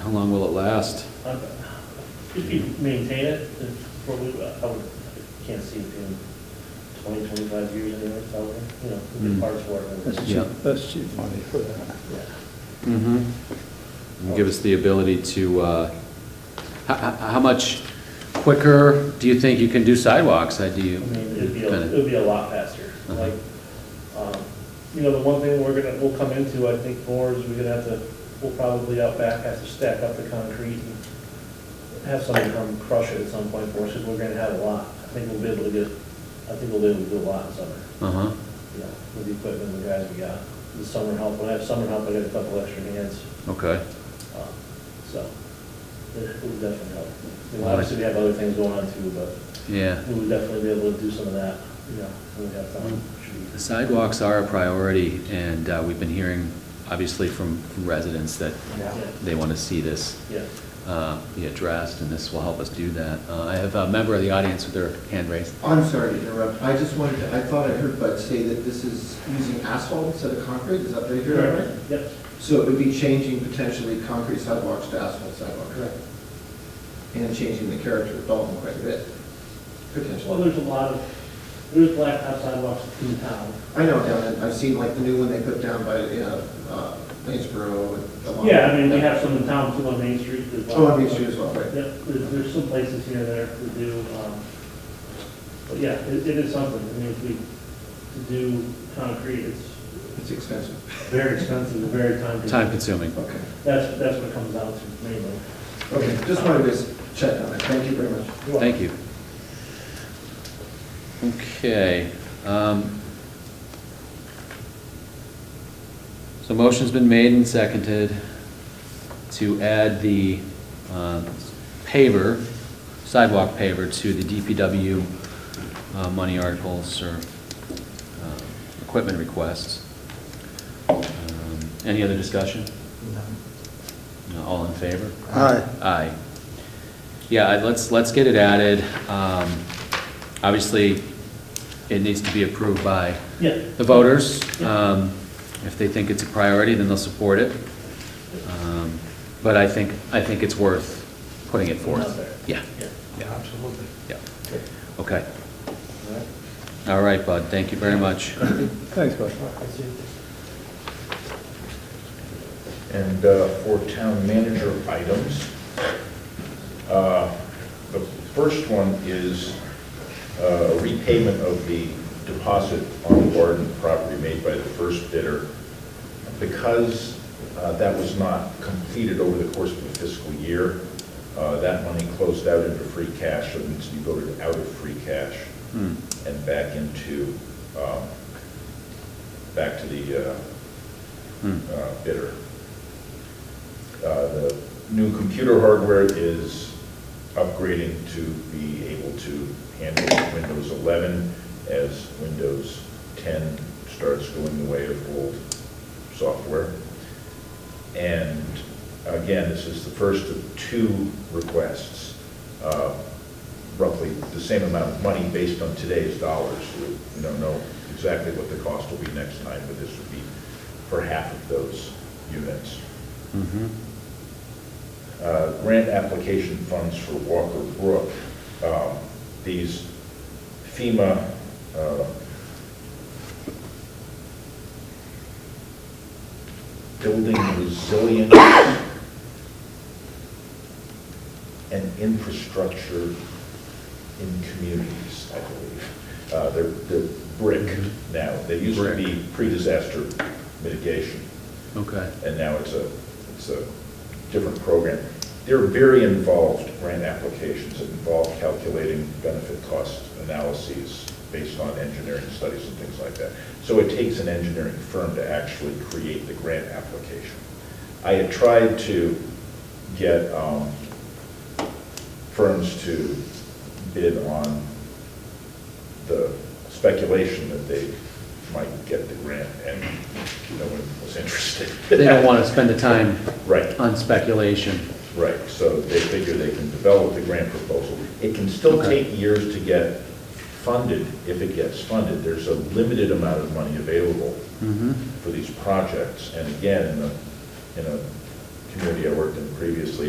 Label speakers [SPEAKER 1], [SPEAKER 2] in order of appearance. [SPEAKER 1] How long will it last?
[SPEAKER 2] Uh, If you maintain it, it's probably, I would, I can't see it being 20, 25 years anyway, it's out there, you know, it'd be
[SPEAKER 1] Mm.
[SPEAKER 2] parts for
[SPEAKER 3] That's
[SPEAKER 2] it.
[SPEAKER 1] Yeah.
[SPEAKER 3] cheap, that's cheap money for that.
[SPEAKER 2] Yeah.
[SPEAKER 1] Mm-hmm. Give us the ability to, uh, how, how much quicker do you think you can do sidewalks? I do
[SPEAKER 2] I
[SPEAKER 1] you?
[SPEAKER 2] mean, it'd be, a-
[SPEAKER 1] kinda-
[SPEAKER 2] it'd be a lot faster,
[SPEAKER 1] Uh-huh.
[SPEAKER 2] like, um, you know, the one thing we're gonna, we'll come into, I think, more is we're gonna have to, we'll probably out back have to stack up the concrete and have someone come crush it at some point for us, because we're gonna have a lot. I think we'll be able to get, I think we'll be able to do a lot in summer.
[SPEAKER 1] Uh-huh,
[SPEAKER 2] you know, with the equipment and the guys we got. The summer help, when I have summer help, I got a couple extra hands,
[SPEAKER 1] okay.
[SPEAKER 2] uh, so it it would definitely help. You know, obviously, we have other things going on too, but
[SPEAKER 1] Yeah.
[SPEAKER 2] we would definitely be able to do some of that, you know, when we have time.
[SPEAKER 1] The sidewalks are a priority, and uh, we've been hearing, obviously, from from residents that
[SPEAKER 2] Yeah,
[SPEAKER 1] they want to see this
[SPEAKER 2] yeah.
[SPEAKER 1] uh, be addressed, and this will help us do that. Uh, I have a member of the audience with their hand raised.
[SPEAKER 4] I'm sorry to interrupt. I just wanted to, I thought I heard Bud say that this is using asphalt instead of concrete. Is that right here? right?
[SPEAKER 2] Yep,
[SPEAKER 4] So it would be changing potentially concrete sidewalks to asphalt sidewalks.
[SPEAKER 2] correct.
[SPEAKER 4] And changing the character of Dalton quite a bit,
[SPEAKER 2] Well,
[SPEAKER 4] potentially.
[SPEAKER 2] there's a lot of, there's blacktop sidewalks in town.
[SPEAKER 4] I know down in, I've seen like the new one they put down by, you know, uh, Lanesboro and. along-
[SPEAKER 2] Yeah, I mean, we have some in town too on Main Street. there's
[SPEAKER 4] Oh, on Main
[SPEAKER 2] blacktop.
[SPEAKER 4] Street as well, right.
[SPEAKER 2] Yep, there's, there's some places here and there to do, um, but yeah, it, it is something, I mean, if we, to do concrete, it's
[SPEAKER 4] It's expensive.
[SPEAKER 2] very expensive, and very time
[SPEAKER 1] Time
[SPEAKER 2] consuming.
[SPEAKER 1] consuming.
[SPEAKER 4] Okay.
[SPEAKER 2] That's, that's what it comes down to mainly.
[SPEAKER 4] Okay, just wanted to check on it. Thank you very much.
[SPEAKER 1] Thank you. Okay. um, So motion's been made and seconded to add the um, paver, sidewalk paver, to the DPW uh, money articles or um, equipment requests. Um, Any other discussion? No, All in favor?
[SPEAKER 3] Aye.
[SPEAKER 1] Aye. Yeah, I- let's, let's get it added. Um, Obviously, it needs to be approved by
[SPEAKER 2] Yeah,
[SPEAKER 1] the voters. Um, If they think it's a priority, then they'll support it. Um, But I think, I think it's worth putting it forth.
[SPEAKER 2] Out there.
[SPEAKER 1] Yeah,
[SPEAKER 2] yeah.
[SPEAKER 5] Absolutely.
[SPEAKER 1] yeah. Okay. All right, Bud, thank you very much. Hmm,
[SPEAKER 3] Thanks, bud.
[SPEAKER 5] And uh, for town manager items, uh, the first one is uh, repayment of the deposit on the Warden property made by the first bidder. Because uh, that was not completed over the course of the fiscal year, uh, that money closed out into free cash, so it needs to be voted out of free cash
[SPEAKER 1] Hmm.
[SPEAKER 5] and back into, um, back to the uh,
[SPEAKER 1] Hmm.
[SPEAKER 5] uh, bidder. Uh, The new computer hardware is upgrading to be able to handle Windows 11 as Windows 10 starts going the way of old software. And again, this is the first of two requests, uh, roughly the same amount of money based on today's dollars. We don't know exactly what the cost will be next time, but this would be for half of those units.
[SPEAKER 1] Mhm.
[SPEAKER 5] Uh, Grant application funds for Walker Brook. Um, These FEMA uh, building resilience and infrastructure in communities, I believe. Uh, They're, they're brick now. They used to be pre-disaster mitigation
[SPEAKER 1] Okay.
[SPEAKER 5] and now it's a, it's a different program. They're very involved grant applications that involve calculating benefit cost analyses based on engineering studies and things like that. So it takes an engineering firm to actually create the grant application. I had tried to get um, firms to bid on the speculation that they might get the grant, and no one was interested.
[SPEAKER 1] They don't want to spend the time
[SPEAKER 5] Right,
[SPEAKER 1] on speculation.
[SPEAKER 5] right, so they figure they can develop the grant proposal. It can still
[SPEAKER 1] Okay.
[SPEAKER 5] take years to get funded, if it gets funded. There's a limited amount of money available
[SPEAKER 1] Mhm.
[SPEAKER 5] for these projects, and again, in a, in a community I worked in previously,